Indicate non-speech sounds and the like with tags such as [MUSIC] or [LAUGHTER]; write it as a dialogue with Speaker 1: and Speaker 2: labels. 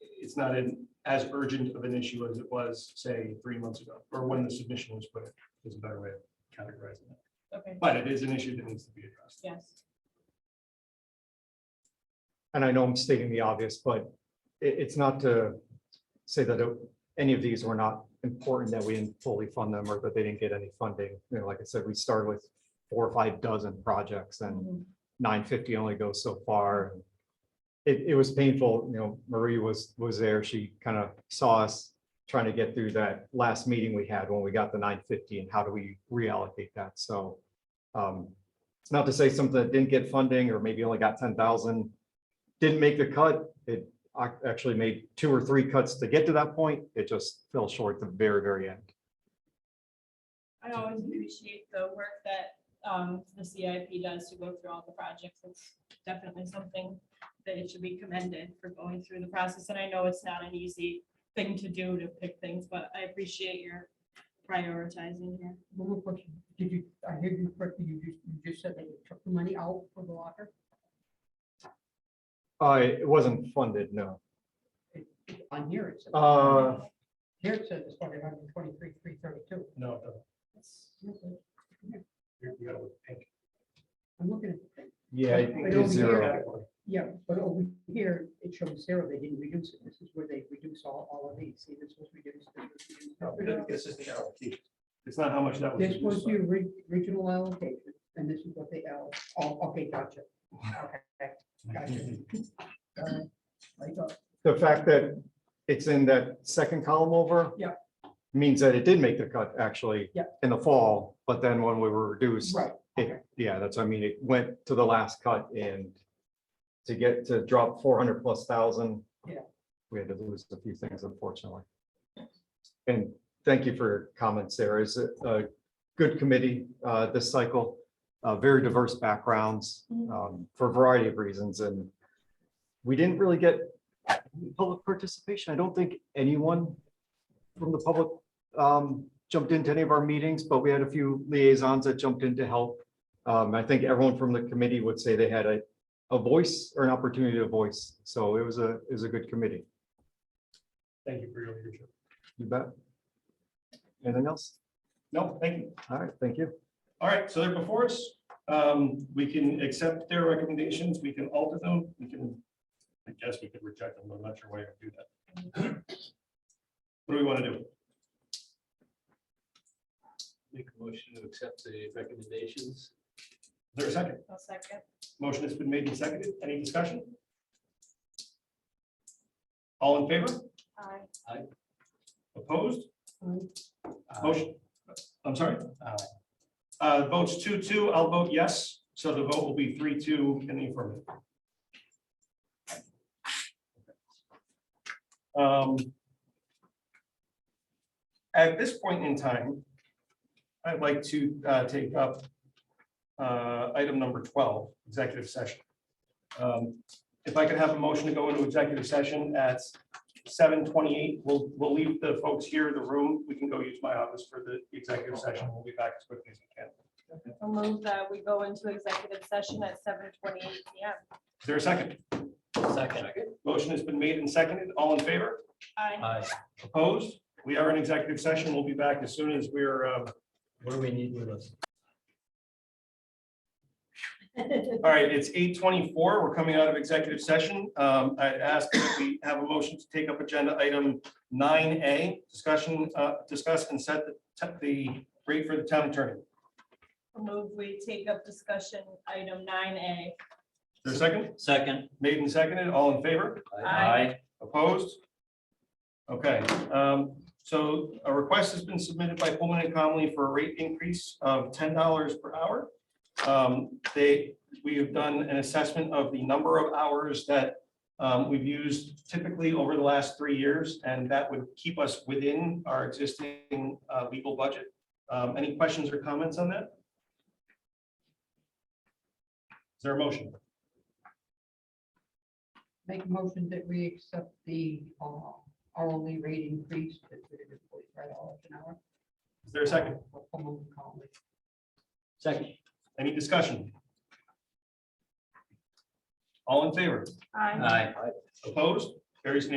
Speaker 1: it's not an, as urgent of an issue as it was, say, three months ago, or when the submission was put, in, is a better way of categorizing it.
Speaker 2: Okay,
Speaker 1: But it is an issue that needs to be addressed.
Speaker 2: yes.
Speaker 3: and I know I'm stating the obvious, but it, it's not to say that it- any of these were not important, that we didn't fully fund them or that they didn't get any funding. You know, like I said, we started with four or five dozen projects and
Speaker 2: Mhm.
Speaker 3: nine fifty only goes so far. and It, it was painful, you know, Marie was, was there, she kind of saw us trying to get through that last meeting we had when we got the nine fifty and how do we reallocate that, so. um It's not to say something that didn't get funding or maybe only got ten thousand, didn't make the cut, it ac- actually made two or three cuts to get to that point, it just fell short at the very, very end.
Speaker 2: I always appreciate the work that um, the CIP does to go through all the projects. It's definitely something that it should be commended for going through the process. And I know it's not an easy thing to do to pick things, but I appreciate your prioritizing here.
Speaker 4: Well, real quick, Did you, I heard you correctly, you just, you just said that you took the money out for the locker?
Speaker 3: Uh, it wasn't funded, no.
Speaker 4: On here it says.
Speaker 3: Uh,
Speaker 4: Here it says it's funded hundred and twenty-three, three thirty-two.
Speaker 1: No, no, you you gotta look pink.
Speaker 4: I'm looking at,
Speaker 3: yeah,
Speaker 4: I think
Speaker 3: it's zero.
Speaker 1: Category.
Speaker 4: yeah, but over here, it shows zero, they didn't reduce it, this is where they reduce all, all of these, see, this was reduced. this was reduced.
Speaker 1: No, it- This is the allocation. It's not how much that was.
Speaker 4: This was
Speaker 1: reduced by.
Speaker 4: the ori- original allocation, and this is what they, all- oh, okay, gotcha. Okay, gotcha. Uh, I thought-
Speaker 3: the fact that it's in that second column over.
Speaker 4: Yeah.
Speaker 3: Means that it did make the cut actually.
Speaker 4: Yeah.
Speaker 3: In the fall, but then when we were reduced,
Speaker 4: Right,
Speaker 3: it, yeah, that's, I mean, it went to the last cut and to get to drop four hundred plus thousand.
Speaker 4: Yeah.
Speaker 3: We had to lose a few things unfortunately. And thank you for your comments there. It's a, a good committee, uh, this cycle, uh, very diverse backgrounds,
Speaker 2: Mhm.
Speaker 3: um, for a variety of reasons and we didn't really get public participation. I don't think anyone from the public um, jumped into any of our meetings, but we had a few liaisons that jumped in to help. Um, I think everyone from the committee would say they had a, a voice or an opportunity to voice. So it was a, it was a good committee.
Speaker 1: [LAUGHS] Thank you for your leadership.
Speaker 3: You bet. Anything else?
Speaker 1: No, thank you.
Speaker 3: All right, thank you.
Speaker 1: All right, so they're before us. Um, We can accept their recommendations, we can alter them, we can, I guess we could reject them, I'm not sure why I would do that. What do we want to do?
Speaker 5: Make a motion to accept the
Speaker 1: Is
Speaker 5: recommendations.
Speaker 1: there a second?
Speaker 2: I'll second.
Speaker 1: Motion has been made and seconded, any discussion? All in favor?
Speaker 2: Aye.
Speaker 1: Opposed?
Speaker 5: Uh,
Speaker 1: Motion, I'm sorry? Uh, Votes two, two, I'll vote yes, so the vote will be three, two in the affirmative. Um, At this point in time, I'd like to uh, take up uh, item number 12, executive session. Um, If I could have a motion to go into executive session at seven twenty-eight, we'll, we'll leave the folks here in the room. We can go use my office for the executive session. We'll be back as quickly as we can.
Speaker 2: I'll move that we go into executive session at seven twenty-eight PM.
Speaker 1: Is there a second?
Speaker 5: Second.
Speaker 1: Motion has been made and seconded. All in favor?
Speaker 2: Aye.
Speaker 5: Aye.
Speaker 1: Opposed? We are in executive session. We'll be back as soon as we're, uh,
Speaker 5: What do we need with us?
Speaker 1: all right, it's eight twenty-four. We're coming out of executive session. Um, I ask that we have a motion to take up agenda item nine A, discussion, uh, discuss and set the, the rate for the town attorney. Is
Speaker 2: [LAUGHS] I'll move we take up discussion item nine A.
Speaker 1: there a second?
Speaker 5: Second.
Speaker 1: Made and seconded. All in favor?
Speaker 2: Aye.
Speaker 1: Opposed? Okay, um, so a request has been submitted by Pullman and Conley for a rate increase of ten dollars per hour. Um, They, we have done an assessment of the number of hours that um, we've used typically over the last three years, and that would keep us within our existing uh, legal budget. Um, Any questions or comments on that? Is there a motion?
Speaker 4: Make a motion that we accept the uh, hourly rate increase to forty-five dollars an hour.
Speaker 1: Is there a second?
Speaker 4: For Pullman and Conley.
Speaker 5: Second.
Speaker 1: Any discussion? All in favor?
Speaker 2: Aye.
Speaker 5: Aye.
Speaker 1: Opposed? Carries unanimously.